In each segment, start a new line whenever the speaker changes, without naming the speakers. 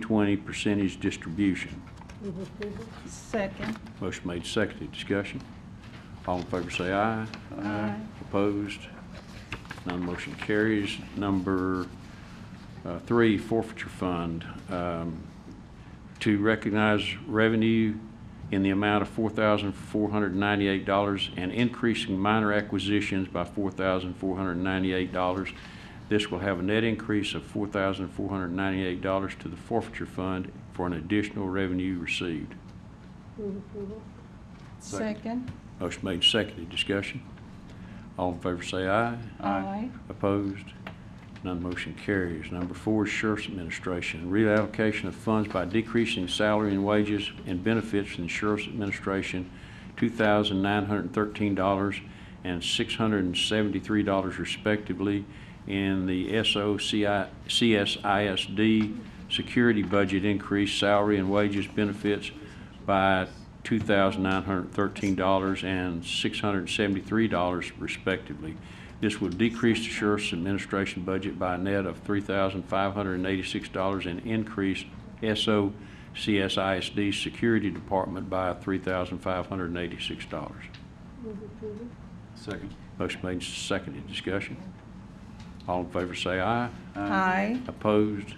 twenty percentage distribution.
Move approval.
Second.
Motion made, seconded, discussion. All in favor say aye.
Aye.
Opposed? None motion carries. Number uh, three, forfeiture fund, um, to recognize revenue in the amount of $4,498 and increasing minor acquisitions by $4,498. This will have a net increase of $4,498 to the forfeiture fund for an additional revenue received.
Move approval.
Second.
Motion made, seconded, discussion. All in favor say aye.
Aye.
Opposed? None motion carries. Number four is Sheriff's Administration. Reallocation of funds by decreasing salary and wages and benefits in Sheriff's Administration, $2,913 and $673 respectively, in the SOCI CSISD security budget increase salary and wages benefits by $2,913 and $673 respectively. This will decrease the sheriff's administration budget by a net of $3,586 and increase SO CSISD Security Department by $3,586.
Move approval.
Second.
Motion made, seconded, discussion. All in favor say aye.
Aye.
Opposed?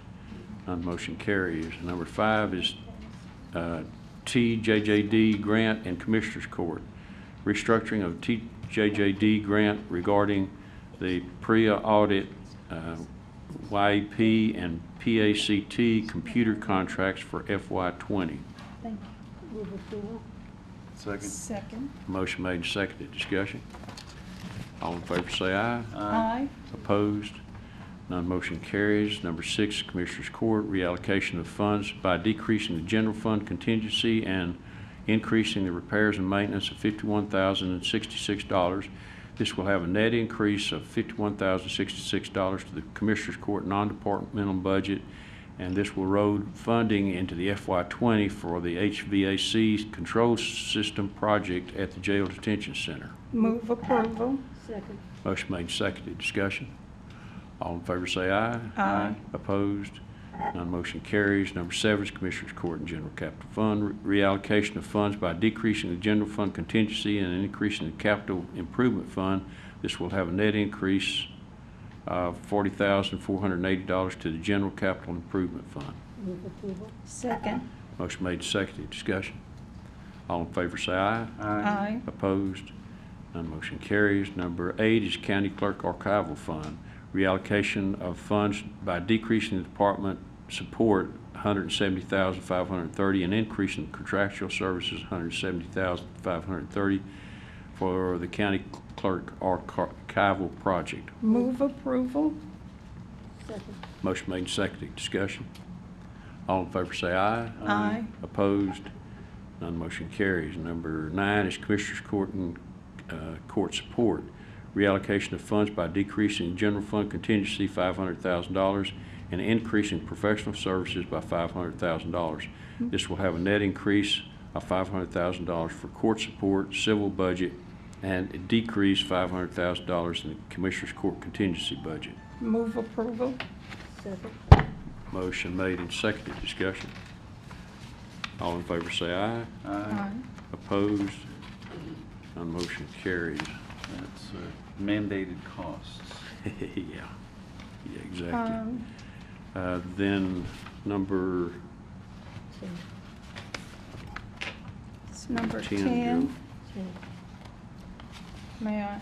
None motion carries. Number five is uh, TJJD Grant and Commissioners Court. Restructuring of TJJD Grant regarding the PREA audit, uh, YEP, and PACT computer contracts for FY '20.
Thank
Move approval.
you.
Second.
Second.
Motion made and seconded. Discussion. All in favor say aye.
Aye.
Opposed? None motion carries. Number six, Commissioners Court, reallocation of funds by decreasing the general fund contingency and increasing the repairs and maintenance of $51,066. This will have a net increase of $51,066 to the Commissioners Court non-departmental budget, and this will road funding into the FY20 for the HVAC control system project at the jail detention center.
Move approval.
Second.
Motion made, and seconded, discussion. All in favor say aye.
Aye.
Opposed? None motion carries. Number seven is Commissioners Court and General Capital Fund, reallocation of funds by decreasing the general fund contingency and increasing the capital improvement fund. This will have a net increase of $40,480 to the general capital improvement fund.
Move approval.
Second.
Motion made, and seconded, discussion. All in favor say aye.
Aye.
Opposed? None motion carries. Number eight is County Clerk Archival Fund. Reallocation of funds by decreasing the department support, $170,530, and increasing contractual services, $170,530 for the County Clerk Archival Project.
Move approval.
Second.
Motion made, and seconded. Discussion. All in favor say aye.
Aye.
Opposed? None motion carries. Number nine is Commissioners Court and uh, Court Support. Reallocation of funds by decreasing general fund contingency $500,000 and increasing professional services by $500,000. This will have a net increase of $500,000 for court support, civil budget, and a decrease $500,000 in the Commissioners Court contingency budget.
Move approval.
Second.
Motion made and seconded. Discussion. All in favor say aye.
Aye.
Opposed? None motion carries.
That's uh, mandated costs.
Yeah, yeah, exactly.
Um,
Uh, Then, number
Second.
It's number
10,
10.
Second.
May I,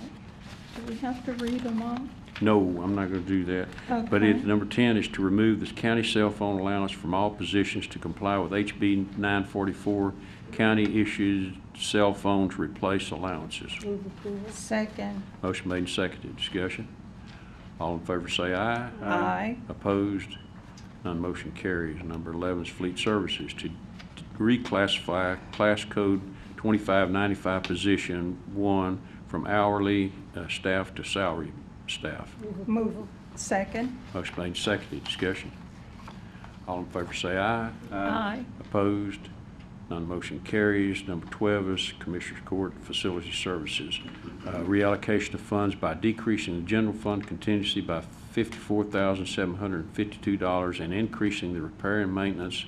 do we have to read them all?
no, I'm not going to do that. But it,
Okay.
number 10 is to remove the county cell phone allowance from all positions to comply with HB 944, county-issued cell phones replace allowances.
Move approval.
Second.
Motion made and seconded. Discussion. All in favor say aye.
Aye.
Opposed? None motion carries. Number 11 is Fleet Services to reclassify Class Code 2595 Position 1 from hourly uh, staff to salary staff.
Move. Second.
Motion made, and seconded. Discussion. All in favor say aye.
Aye.
Opposed? None motion carries. Number 12 is Commissioners Court Facility Services. Uh, Reallocation of funds by decreasing the general fund contingency by $54,752 and increasing the repair and maintenance